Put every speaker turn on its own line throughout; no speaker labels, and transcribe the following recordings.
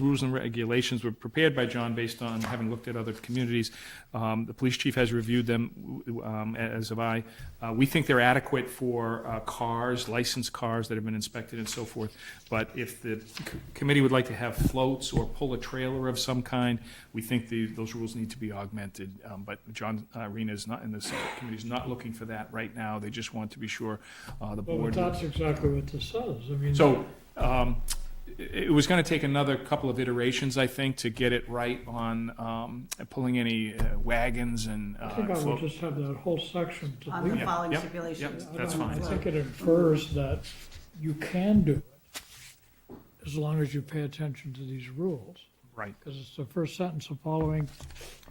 rules and regulations were prepared by John based on having looked at other communities. Um, The police chief has reviewed them, w- um, as have I. Uh, We think they're adequate for uh, cars, licensed cars that have been inspected and so forth. But if the c- committee would like to have floats or pull a trailer of some kind, we think the, those rules need to be augmented. Um, But John uh, Arena is not, and the committee's not looking for that right now. They just want to be sure uh, the
Well, but
board.
that's exactly what this says, I mean.
So, um, it it was gonna take another couple of iterations, I think, to get it right on, um, pulling any uh, wagons and,
I think
uh,
I would
float.
just have that whole section to
on the
leave.
Yeah,
following
yep,
stipulations.
yep, that's
I don't-
fine.
I think it infers that you can do it as long as you pay attention to these rules.
right,
Because it's the first sentence, the following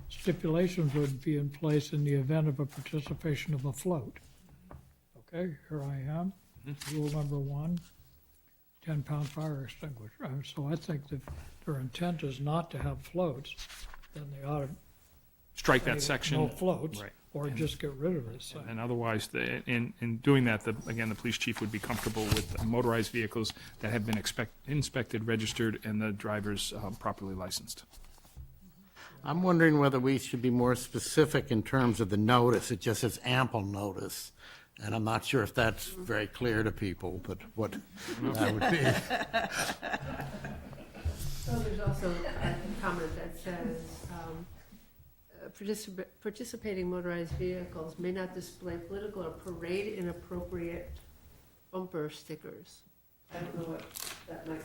stipulations would be in place in the event of a participation of a float. Okay, here I am,
Mm-hmm.
rule number one, 10-pound fire extinguisher. And So I think that if their intent is not to have floats, then they ought to
strike that
say
section.
No floats,
Right.
or just get rid of this thing.
And otherwise, the, in, in doing that, the, again, the police chief would be comfortable with motorized vehicles that have been expect, inspected, registered, and the drivers um, properly licensed.
I'm wondering whether we should be more specific in terms of the notice. It just says ample notice. And I'm not sure if that's very clear to people, but what that would be.
Well, there's also a comment that says, um, uh, "Participa- participating motorized vehicles may not display political or parade inappropriate bumper stickers. I don't know what that might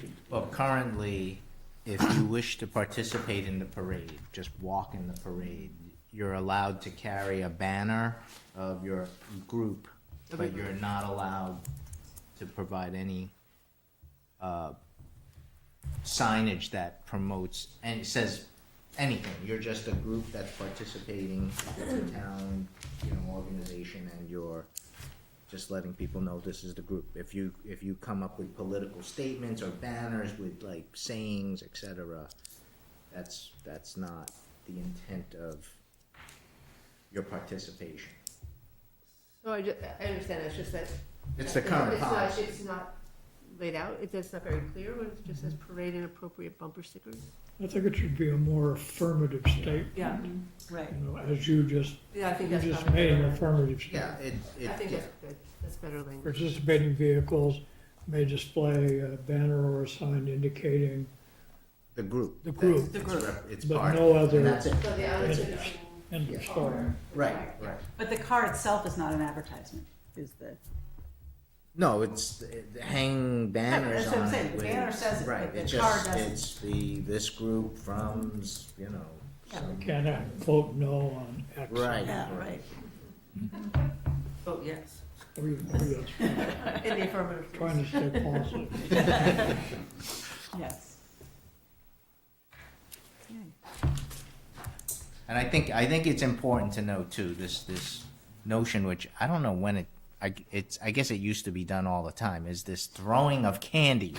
be.
Well, currently, if you wish to participate in the parade, just walk in the parade, you're allowed to carry a banner of your group, but you're not allowed to provide any uh, signage that promotes and says anything. You're just a group that's participating in the town, you know, organization, and you're just letting people know this is the group. If you, if you come up with political statements or banners with like sayings, et cetera, that's, that's not the intent of your participation.
So I, ju- I understand, it's just that.
It's the current
not-
policy.
It's not laid out, It- it's not very clear, when it just says parade inappropriate bumper stickers.
I think it should be a more affirmative statement,
Yeah,
Right.
you know, as you just,
yeah, I
you
think that's
just
probably
made an
better.
affirmative statement.
Yeah, it, it,
I think
yeah.
that's good, that's better language.
participating vehicles may display a banner or a sign indicating,
the group.
The group.
That's-
The group.
it's rep- It's
But
part.
no
of it,
other-
And that's it.
So the
That's
answer
it.
is-
end of story.
Right, right.
But the car itself is not an advertisement, is the.
No, it's the- the hang banners
That's what I'm
on
saying.
it
The
with-
banner says it,
right,
but the
it's
car
just-
doesn't.
It's the, this group from, you know,
Yeah.
some-
Cannot vote no on X.
right.
Vote Oh, yes.
We- we are
In the affirmative.
Trying to stay positive.
Yes. Okay.
And I think, I think it's important to note too, this, this notion, which I don't know when it, I, it's, I guess it used to be done all the time, is this throwing of candy.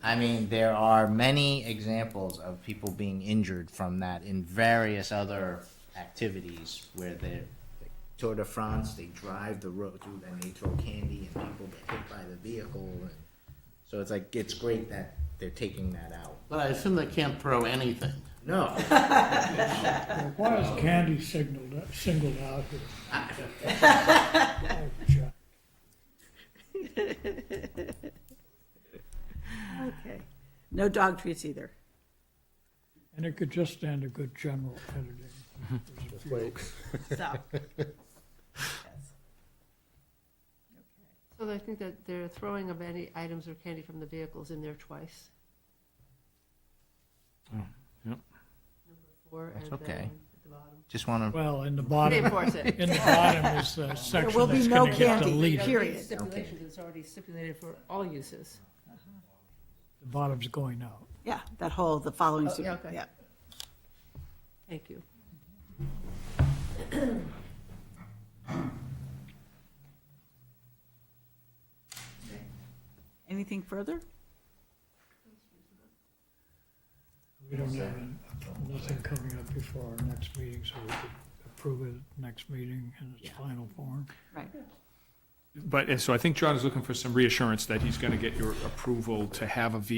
I mean, there are many examples of people being injured from that in various other activities where they, like Tour de France, they drive the road through and they throw candy and people get hit by the vehicle. and So it's like, it's great that they're taking that out.
But I assume they can't throw anything.
No.
Why is candy signaled, out- singled out here? Oh, Jack.
Okay. No dog treats either.
And it could just stand a good general editing. There's a few-
So.
So I think that they're throwing of any items or candy from the vehicles in there twice.
Oh, yep.
Number four, and
That's
then at
okay.
the bottom.
Just wanna
Well, in the
They
bottom,
enforce it.
in the bottom is the section
will be
that's
no
gonna get
candy.
You know,
deleted.
Here. Period.
these Stipulations, it's already stipulated for all uses.
The bottom's going out.
Yeah, that whole, the following.
Oh,
su-
yeah, okay.
Yeah.
Thank you.
Anything further?
We don't have, an- nothing coming up before our next meeting, so we could approve it next meeting in its final form.
Right.
But, and so I think John is looking for some reassurance that he's gonna get your approval to have a ve,